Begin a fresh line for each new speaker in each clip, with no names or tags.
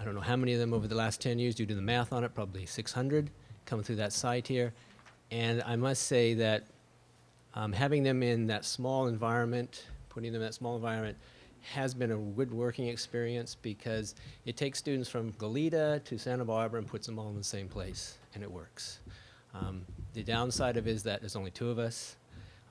I don't know how many of them over the last 10 years, you do the math on it, probably 600 come through that site here. And I must say that um, having them in that small environment, putting them in that small environment, has been a good working experience because it takes students from Goleta to Santa Barbara and puts them all in the same place, and it works. Um, the downside of it is that there's only two of us.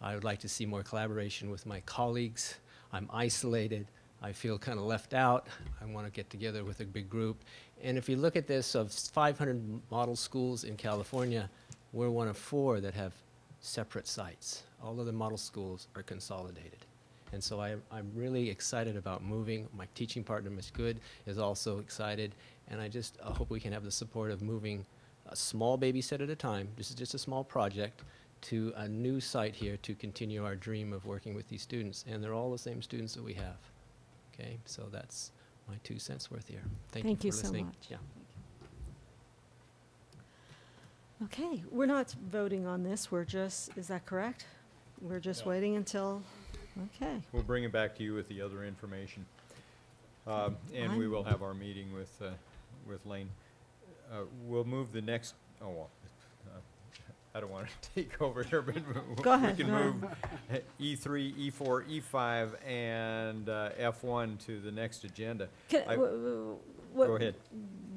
I would like to see more collaboration with my colleagues. I'm isolated. I feel kind of left out. I want to get together with a big group. And if you look at this, of 500 model schools in California, we're one of four that have separate sites. All other model schools are consolidated. And so I, I'm really excited about moving. My teaching partner, Ms. Good, is also excited. And I just uh, hope we can have the support of moving a small baby set at a time. This is just a small project to a new site here to continue our dream of working with these students. And they're all the same students that we have. Okay, so that's my two cents worth here. Thank,
Thank
you
you
for
so
listening.
much.
Yeah.
Okay, we're not voting on this, we're just, is that correct? We're just
No.
waiting until, okay.
We'll bring it back to you with the other information. Um, And we
I'm-
will have our meeting with, uh, with Lane. Uh, We'll move the next, oh, well, uh, I don't want to take over here, but we-
Go ahead,
we can
no.
move uh, E3, E4, E5, E and uh, F1 to the next agenda.
Can-
I-
w- w- w-
Go ahead.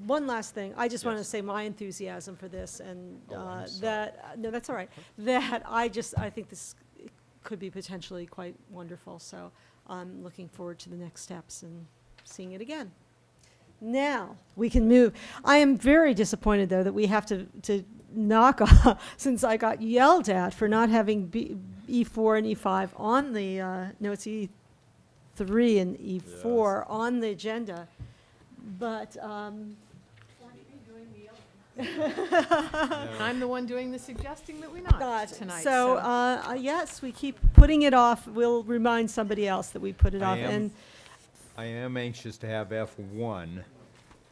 One last thing, I just want to
Yes.
say my enthusiasm for this and
Oh, I'm
uh,
sorry.
that, uh, no, that's all right, that I just, I think this could be potentially quite wonderful, so I'm looking forward to the next steps and seeing it again. Now, we can move. I am very disappointed, though, that we have to, to knock off, since I got yelled at for not having B, E4 and E5 on the, uh, no, it's E3 and E4 on the agenda. But, um,
Now,
I'm the one doing the suggesting that we not
not.
tonight.
so, uh, uh, yes, we keep putting it off. We'll remind somebody else that we put it
I
off.
am-
And
I am anxious to have F1,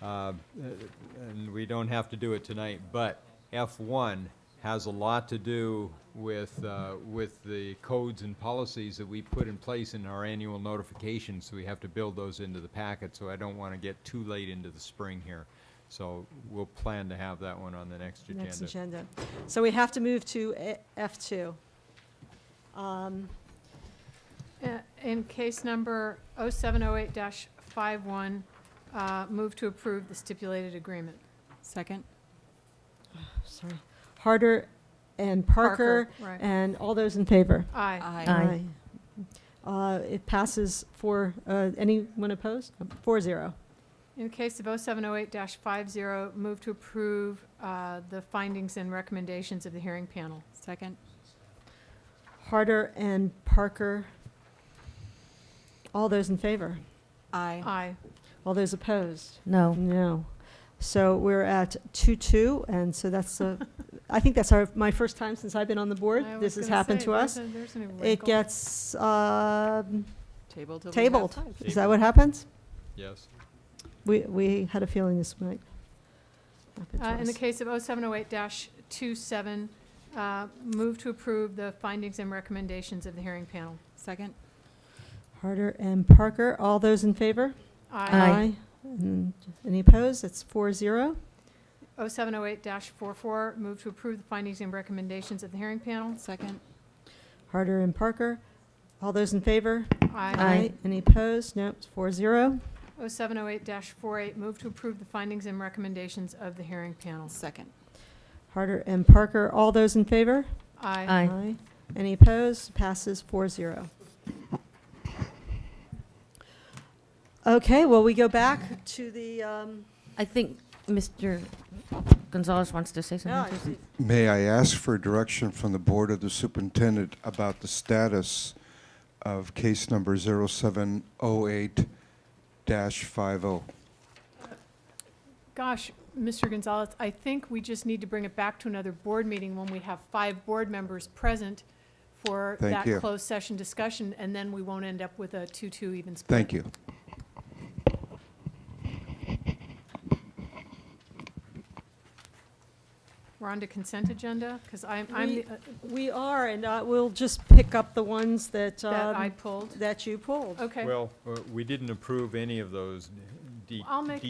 uh, and we don't have to do it tonight, but F1 has a lot to do with, uh, with the codes and policies that we put in place in our annual notifications, so we have to build those into the packet, so I don't want to get too late into the spring here. So we'll plan to have that one on the next agenda.
next agenda. So we have to move to E, A- F2. Um,
Uh, In case number 0708-51, uh, move to approve the stipulated agreement.
Second?
sorry. Harder and Parker.
Right.
And all those in favor?
Aye.
Aye. Uh, It passes for, anyone opposed? Four zero.
In case of 0708-50, move to approve uh, the findings and recommendations of the hearing panel.
Second?
Harder and Parker. All those in favor?
Aye.
Aye.
All those opposed?
No.
No. So we're at two-two, and so that's, uh, I think that's our, my first time since I've been on the board.
I was
This has
gonna
happened
say,
to
there's
us.
a- there's a new
It
wrinkle.
gets um,
Table till we have
tabled.
five.
Is that what happens?
Yes.
We, we had a feeling this might happen to
Uh, In the
us.
case of 0708-27, uh, move to approve the findings and recommendations of the hearing panel.
Second?
Harder and Parker, all those in favor?
Aye.
And Any opposed? It's four zero.
0708-44, move to approve the findings and recommendations of the hearing panel.
Second?
Harder and Parker, all those in favor?
Aye.
Any opposed? No, it's four zero.
0708-48, move to approve the findings and recommendations of the hearing panel.
Second.
Harder and Parker, all those in favor?
Aye.
Any opposed? Passes four zero. Okay, well, we go back to the, um,
I think Mr. Gonzalez wants to say
no,
something.
oh, I-
May I ask for direction from the Board of the Superintendent about the status of case number 0708-50? oh?
Gosh, Mr. Gonzalez, I think we just need to bring it back to another board meeting when we have five board members present for
Thank
that
you.
closed session discussion, and then we won't end up with a 2-2 even split.
Thank you.
We're on to consent agenda, because I'm, I'm
We-
the- uh,
we are, and uh, we'll just pick up the ones that,
that I
um,
pulled.
that you pulled.
Okay.
Well, uh, we didn't approve any of those D-
I'll make